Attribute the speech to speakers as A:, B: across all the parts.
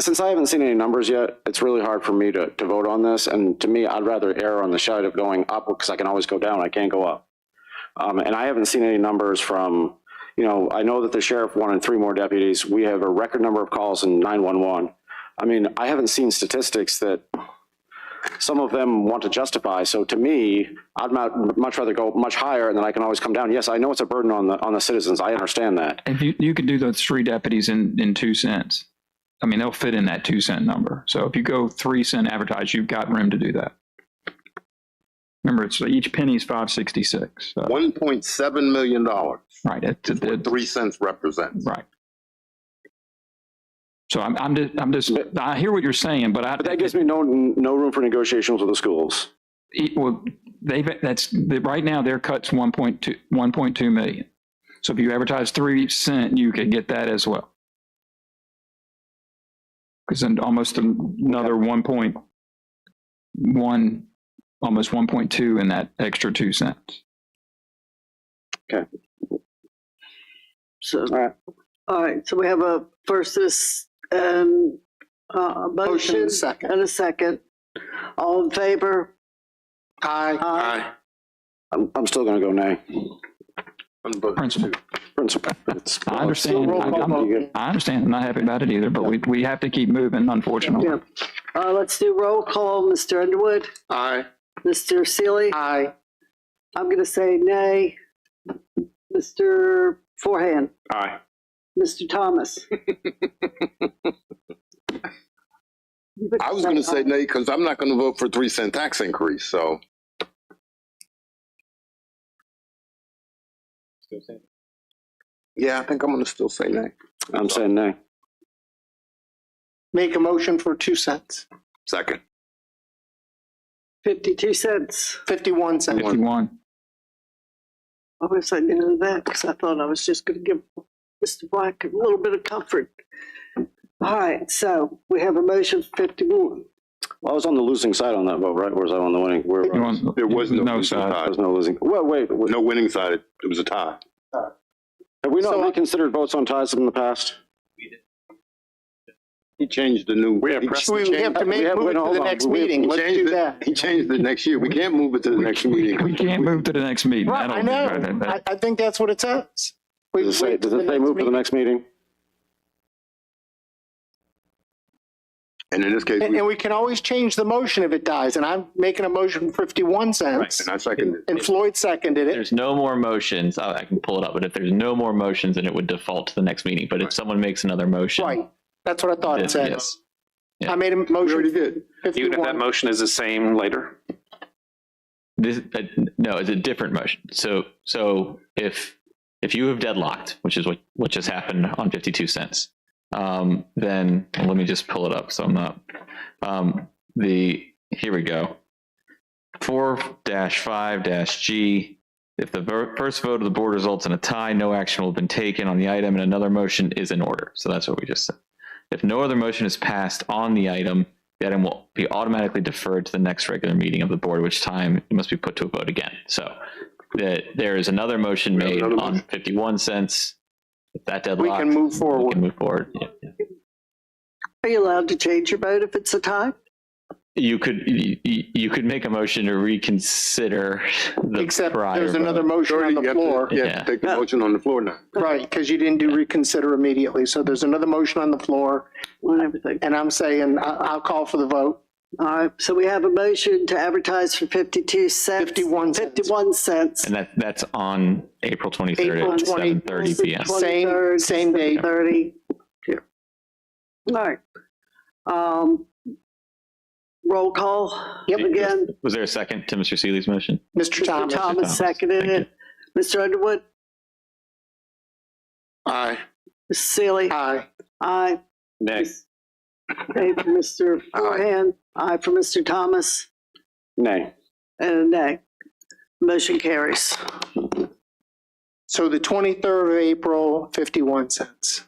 A: Since I haven't seen any numbers yet, it's really hard for me to, to vote on this. And to me, I'd rather err on the side of going up because I can always go down. I can't go up. Um, and I haven't seen any numbers from, you know, I know that the sheriff wanted three more deputies. We have a record number of calls in 911. I mean, I haven't seen statistics that some of them want to justify. So to me, I'd mu- much rather go much higher and then I can always come down. Yes, I know it's a burden on the, on the citizens. I understand that.
B: If you, you could do those three deputies in, in two cents. I mean, they'll fit in that two cent number. So if you go three cent advertise, you've got room to do that. Remember, it's each penny's five sixty-six. So,
C: One point seven million dollars,
B: right. It's, it's,
C: three cents represents.
B: right. So I'm, I'm just, I'm just, I hear what you're saying, but I,
A: But that gives me no, no room for negotiations with the schools.
B: it- E, well, they've, that's, right now their cut's 1.2, 1.2 million. So if you advertise three cent, you could get that as well. Because then almost another 1.1, almost 1.2 in that extra two cents.
D: So,
A: All right.
D: all right, so we have a first this, um, uh, a motion
C: Motion second.
D: and a second. All in favor?
C: Aye.
D: Aye.
A: I'm, I'm still going to go nay.
C: I'm voting
B: Principal.
C: two.
A: Principal. It's-
B: I understand.
C: roll
B: I-
C: call
B: I'm-
C: vote.
B: I understand. I'm not happy about it either, but we, we have to keep moving, unfortunately.
D: Yeah. Uh, let's do roll call. Mr. Underwood,
C: Aye.
D: Mr. Sealy,
C: Aye.
D: I'm gonna say nay. Mr. Forehand,
A: Aye.
D: Mr. Thomas.
C: I was gonna say nay, because I'm not gonna vote for three cent tax increase, so. Yeah, I think I'm gonna still say nay.
A: I'm saying nay.
E: Make a motion for two cents,
C: Second.
D: Fifty-two cents.
E: 51 cents.
B: 51.
D: I wish I knew that because I thought I was just going to give Mr. Black a little bit of comfort. All right, so we have a motion for 51.
A: Well, I was on the losing side on that vote, right? Or was I on the winning? Where
B: You
A: were I?
B: want-
C: There was no-
B: No side.
A: I was no losing. Well, wait, wait.
C: No winning side, it was a tie.
A: have we not
E: So-
A: reconsidered votes on ties in the past?
C: He changed the new.
A: have
C: he
A: precedent.
E: We have
C: changed-
E: to make,
A: We have-
E: move it
A: wait,
E: to
A: hold
E: the
A: on.
E: next
A: We-
E: meeting.
C: he
E: Let's
C: changed
E: do
C: it-
E: that.
C: He changed it next year. We can't move it to the next meeting.
B: We can't move to the next meeting.
E: Right, I
B: That'll-
E: know. I, I think that's what it says. We
A: Does it say,
E: wait
A: does
E: till
A: it say
E: next
A: move to the
E: meeting.
A: next meeting?
C: And in this case,
E: And,
C: we-
E: and we can always change the motion if it dies, and I'm making a motion for 51
C: right,
E: cents.
C: and I seconded. it.
E: And Floyd seconded it.
F: there's no more motions, I, I can pull it up, but if there's no more motions, then it would default to the next meeting. But if someone makes another motion,
E: Right, that's what I thought it
F: Yes,
E: said.
F: yes. Yeah.
E: I made a
C: We already
E: motion
C: did.
E: for
G: Even if that
E: 51.
G: motion is the same later?
F: this uh, no, it's a different motion. So so if if you have deadlocked, which is what what just happened on fifty two cents, um, then let me just pull it up so I'm not um, the here we go four dash five dash G. If the ver- first vote of the board results in a tie, no action will have been taken on the item, and another motion is in order. So that's what we just said. If no other motion is passed on the item, the item will be automatically deferred to the next regular meeting of the board, which time it must be put to a vote again. So that there is another motion
C: We have
F: made
C: another
F: on
C: motion.
F: 51 cents. If that
E: We
F: deadlocked,
E: can move
F: we
E: forward.
F: can move forward. Yeah.
D: Are you allowed to change your vote if it's a tie?
F: You could, you, you could make a motion to reconsider the
E: Except
F: prior
E: there's another
F: vote.
E: motion
C: Already,
E: on
C: you
E: the
C: have to-
E: floor.
C: You have to take the
D: Yeah.
C: motion on the floor now.
E: Right, because you didn't do reconsider immediately. So there's another motion on the floor,
D: On everything.
E: and I'm saying, I, I'll call for the vote.
D: All right, so we have a motion to advertise for 52 cents.
E: 51 cents.
D: 51 cents.
F: And that, that's on April 23rd
E: April
F: at
E: 20
F: 7:30 PM.
E: Same,
D: 23rd,
E: same date.
D: 30. All right. Um, Roll call
E: Yep.
D: again.
F: Was there a second to Mr. Seeley's motion?
E: Mr.
D: Mr.
E: Thomas.
D: Thomas seconded
F: Thank
D: it. Mr. Underwood,
C: Aye.
D: Mrs. Sealy,
E: Aye.
D: aye.
G: Next.
D: Aye for Mr. Forehand, aye for Mr. Thomas,
A: Nay.
D: and a nay. Motion carries.
E: So the 23rd of April, 51 cents.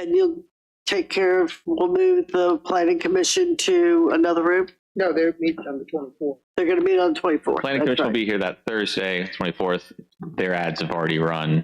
D: And you'll take care of, we'll move the planning commission to another room?
E: No, they're meeting on the 24th.
D: They're going to meet on the 24th.
F: Planning
D: That's
F: Commission will
D: right.
F: be here that Thursday, 24th. Their ads have already run.